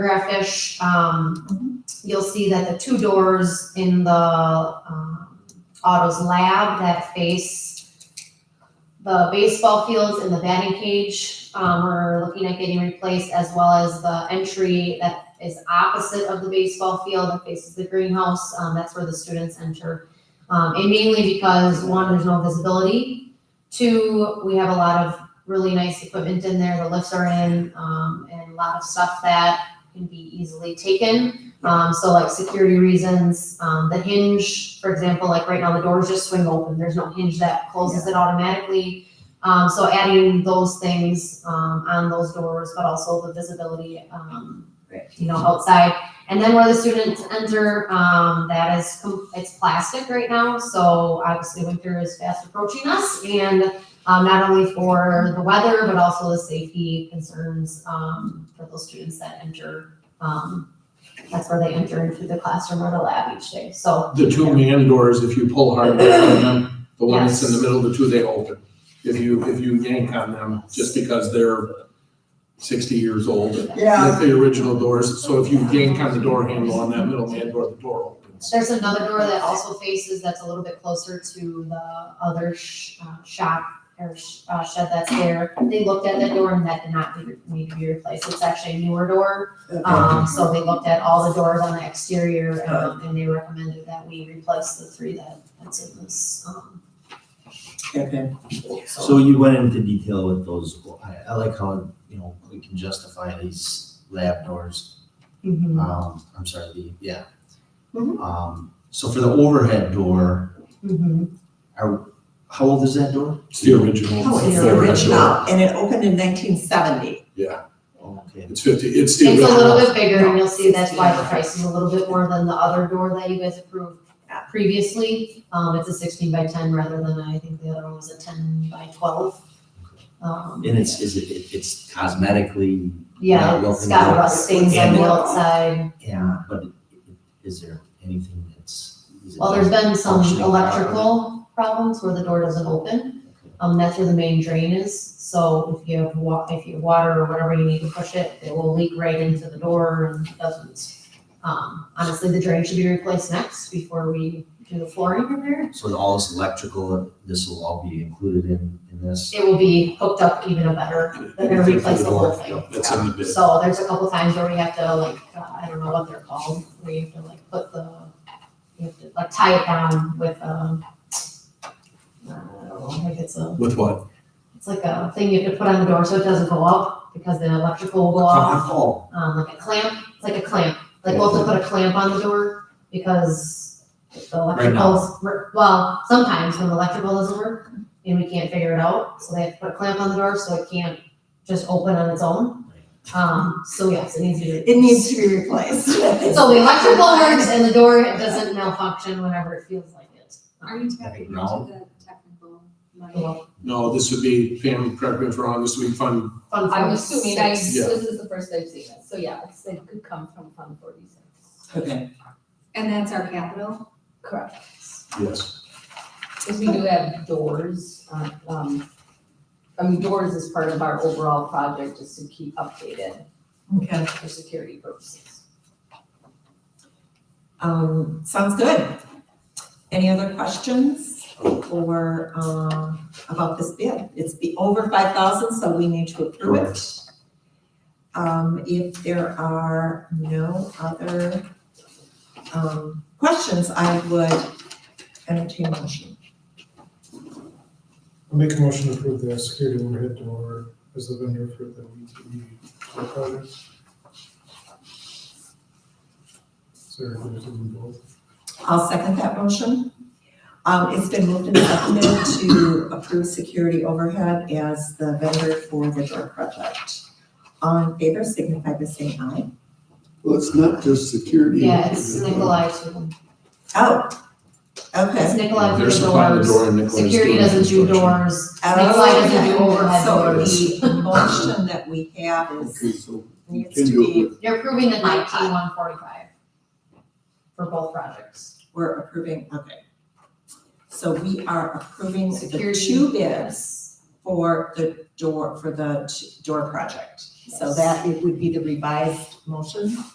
graphish, um, you'll see that the two doors in the, um, Autos Lab that face the baseball fields and the batting cage, um, we're looking at getting replaced as well as the entry that is opposite of the baseball field that faces the greenhouse, um, that's where the students enter. Um, and mainly because, one, there's no visibility, two, we have a lot of really nice equipment in there, the lifts are in, um, and a lot of stuff that can be easily taken. Um, so like security reasons, um, the hinge, for example, like right now the doors just swing open. There's no hinge that closes it automatically. Um, so adding those things um, on those doors, but also the visibility, um, Right. you know, outside. And then where the students enter, um, that is com- it's plastic right now. So obviously winter is fast approaching us, and um, not only for the weather, but also the safety concerns um, for those students that enter. Um, that's where they enter into the classroom or the lab each day. So The two man doors, if you pull hard on them, the one that's in the Yes. middle, the two they open. If you, if you yank on them, just because they're sixty years old, and Yeah. that's the original doors, so if you yank on the door handle on that middle man door, the door opens. there's another door that also faces that's a little bit closer to the other sh- uh, shop or sh- uh, shed that's there. They looked at that door and that did not be- need to be replaced. It's actually a newer door. Um, so they looked at all the doors on the exterior, um, and they recommended that we replace the three that, that's in this, um, Okay. So you went into detail with those, I, I like how, you know, we can justify these lab doors, Mm-hmm. um, I'm sorry, the, yeah. Mhm. Um, so for the overhead door, mhm. how old is that door? It's the original. Oh, it's Yeah. original, and it opened in nineteen seventy. Okay, It's fifty, it's the It's a little original. bit bigger, and you'll see that's why the price is a little bit more than the other door that you guys approved previously. Um, it's a sixteen by ten rather than, I think the other one was a ten by twelve. Um, and it's, is it, it- it's cosmetically, yeah, it's got rust stains on the outside. yeah, but is there anything that's? is it Well, there's been some functioning properly? electrical problems where the door doesn't open. Um, that's where the main drain is, so if you have wa, if you have water or whatever you need to push it, it will leak right into the door and it doesn't. Um, honestly, the drain should be replaced next before we do the flooring repair. So with all this electrical, this will all be included in, in this? It will be hooked up even a better, they're gonna replace the whole thing. That's in the bid. So there's a couple times where we have to like, uh, I don't know what they're called, where you have to like put the, you have to like tie it down with, um, I don't know, like it's a With what? It's like a thing you have to put on the door so it doesn't go up because the electrical will go off. Oh, Um, like a clamp, it's like a clamp. Like we'll have to put a clamp on the door because the electricals, well, sometimes when the electrical doesn't work and we can't figure it out, so they have to put a clamp on the door so it can't just open on its own. Um, so yes, it needs to be. It needs to be replaced. So the electrical works and the door doesn't malfunction whenever it feels like it. Are you tapping tapping into into No. the technical Well, No, this would be, Pam, correct me if I'm wrong, this would be fund, Fun I'm fact, assuming, I, six. this Yeah. is the first I've seen it, so yeah, it's, it could come from Fund forty-six. Okay. And that's our capital? Correct. yes. Because we do have doors, uh, um, I mean, doors is part of our overall project, just to keep updated Okay, for security purposes. um, sounds good. Any other questions or, um, about this bid? It's be over five thousand, so we need to approve it. Um, if there are no other, um, questions, I would entertain a motion. I'll make a motion to approve the security overhead door as the vendor for the VTE door project. Sarah, there's them both. I'll second that motion. Um, it's been moved and seconded to approve security overhead as the vendor for the door project. All in favor, signify by saying aye. Well, it's not just security. Yeah, it's Nikolai too. Oh, It's okay. Nikolai for They're the supplying the doors. door and Nicholas doing Security doesn't do construction. doors. Nikolai Oh, doesn't do overhead doors. So the motion that we have Okay, is, so you needs can to do it be, with, You're approving the nineteen one forty-five for both projects. we're approving, okay. So we are approving the Security. two bids for the door, for the t- door project. So that it would be the revised motion.